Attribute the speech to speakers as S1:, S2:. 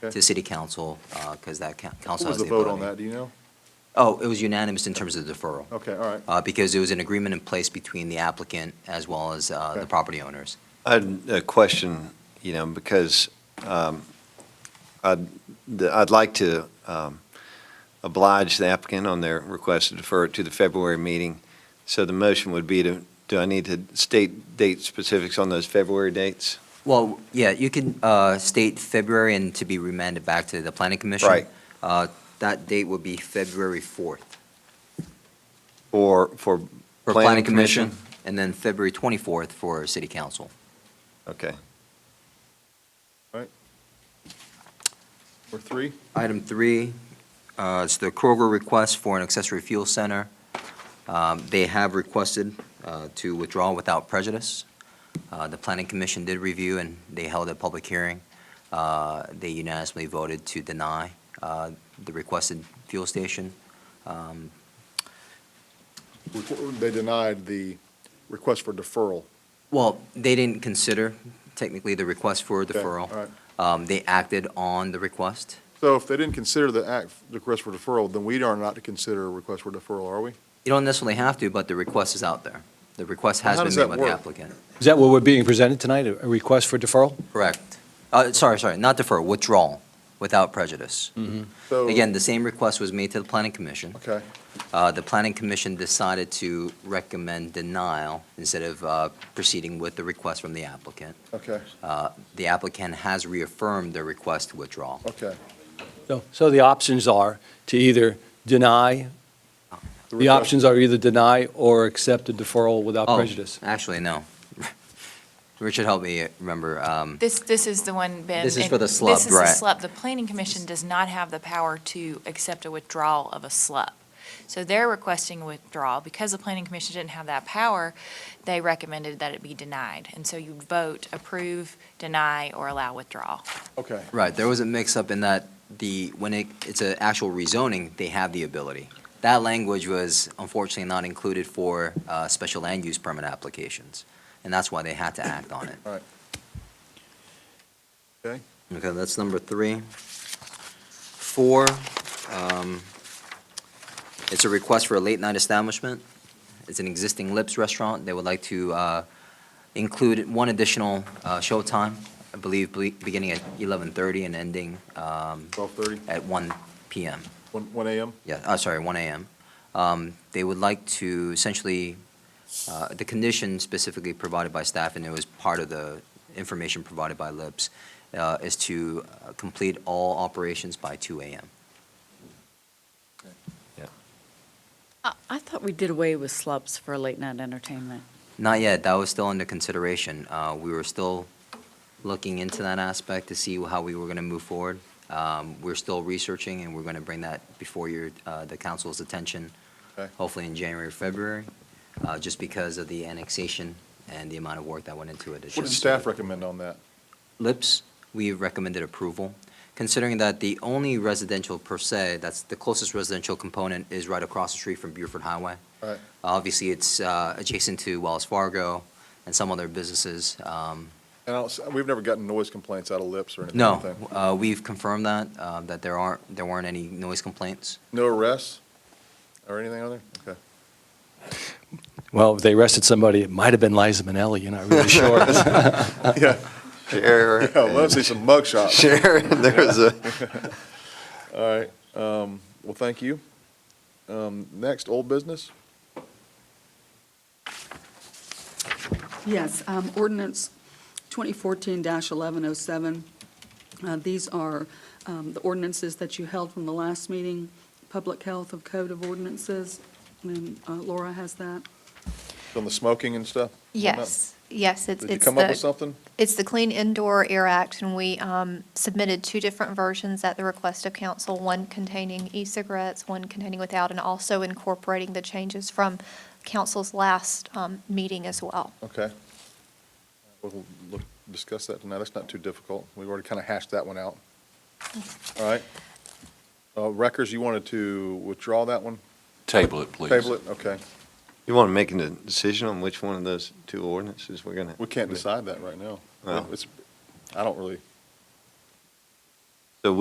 S1: to
S2: Okay.
S1: city council, because that coun-
S2: What
S1: council
S2: was
S1: has
S2: the
S1: the
S2: vote on that,
S1: ability.
S2: do you know?
S1: Oh, it was unanimous in terms of the deferral.
S2: Okay, all right.
S1: Uh, Because there was an agreement in place between the applicant as well as uh, the
S2: Okay.
S1: property owners.
S3: I had a question, you know, because um, I'd the- I'd like to um, oblige the applicant on their request to defer it to the February meeting. So the motion would be to, do I need to state date specifics on those February dates?
S1: Well, yeah, you can uh, state February and to be remanded back to the planning commission.
S3: Right.
S1: Uh, That date would be February 4th
S3: Or for
S1: for planning commission, and then February 24th for city council.
S3: Okay.
S2: Or three?
S1: Item three, uh, it's the Kroger request for an accessory fuel center. Um, They have requested uh, to withdraw without prejudice. Uh, The planning commission did review, and they held a public hearing. Uh, They unanimously voted to deny uh, the requested fuel station. Um,
S2: They denied the request for deferral.
S1: Well, they didn't consider technically the request for
S2: Okay,
S1: deferral.
S2: all right.
S1: Um, They acted on the request.
S2: So if they didn't consider the act, the request for deferral, then we are not to consider a request for deferral, are we?
S1: You don't necessarily have to, but the request is out there. The request has
S2: How
S1: been
S2: does
S1: made
S2: that
S1: by the
S2: work?
S1: applicant.
S4: Is that what we're being presented tonight, a a request for deferral?
S1: Correct. Uh, Sorry, sorry, not defer, withdrawal without prejudice.
S2: So-
S1: Again, the same request was made to the planning commission.
S2: Okay,
S1: Uh, The planning commission decided to recommend denial instead of uh, proceeding with the request from the applicant.
S2: okay,
S1: Uh, The applicant has reaffirmed their request to withdraw.
S2: okay.
S4: No. So the options are to either deny, the
S2: request-
S4: options are either deny or accept a deferral without
S1: Oh,
S4: prejudice.
S1: Actually, no. Richard helped me remember. um,
S5: This, this is the one, Ben.
S1: This is
S5: and
S1: for the slub,
S5: This is the
S1: right.
S5: slub. The planning commission does not have the power to accept a withdrawal of a slub. So they're requesting withdrawal. Because the planning commission didn't have that power, they recommended that it be denied. And so you vote approve, deny, or allow withdrawal.
S2: Okay,
S1: Right, there was a mix-up in that the, when it, it's an actual rezoning, they have the ability. That language was unfortunately not included for uh, special land use permit applications, and that's why they had to act on it.
S2: okay.
S1: Okay, that's number three. Four, um, it's a request for a late-night establishment. It's an existing Lips restaurant. They would like to uh, include one additional uh, showtime, I believe, ble- beginning at 11:30 and ending um,
S2: 12:30,
S1: at 1 PM.
S2: 1 1 AM?
S1: Yeah, uh, sorry, 1 AM. Um, They would like to essentially, uh, the condition specifically provided by staff, and it was part of the information provided by LIPS, uh, is to uh, complete all operations by 2 AM.
S6: I I thought we did away with slubs for late night entertainment.
S1: Not yet, that was still under consideration. Uh, We were still looking into that aspect to see how we were going to move forward. Um, We're still researching, and we're going to bring that before your, uh, the council's attention,
S2: Okay.
S1: hopefully in January, or February, uh, just because of the annexation and the amount of work that went into it. It's
S2: What did
S1: just-
S2: staff recommend on that?
S1: Lips, we recommended approval, considering that the only residential per se, that's the closest residential component is right across the street from Beaufort Highway.
S2: Right.
S1: Obviously, it's uh, adjacent to Wells Fargo and some other businesses. Um,
S2: And I don't, s- we've never gotten noise complaints out of lips or anything.
S1: No,
S2: anything.
S1: uh, we've confirmed that, uh, that there aren't, there weren't any noise complaints.
S2: No arrests or anything on there? Okay.
S4: Well, if they arrested somebody, it might have been Liza Minnelli, you're not really sure.
S3: Share,
S2: Yeah, I'd love to see some mug shots.
S3: share, there's a,
S2: All right, um, well, thank you. Um, next, old business?
S7: Yes, um, ordinance 2014-1107. Uh, These are um, the ordinances that you held from the last meeting, Public Health of Code of Ordinances, and uh, Laura has that.
S2: On the smoking and stuff?
S8: Yes, yes, it's,
S2: Did you
S8: it's
S2: come up with
S8: the,
S2: something?
S8: it's the Clean Indoor Air Act, and we um, submitted two different versions at the request of council, one containing e-cigarettes, one containing without, and also incorporating the changes from council's last um, meeting as well.
S2: Okay. We'll look, discuss that tonight, that's not too difficult, we already kind of hashed that one out. All right. Uh, Reckers, you wanted to withdraw that one?
S9: Table it, please.
S2: Table it, okay,
S3: you want to make a decision on which one of those two ordinances we're going to?
S2: we can't decide that right now.
S3: No.
S2: It's, I don't really,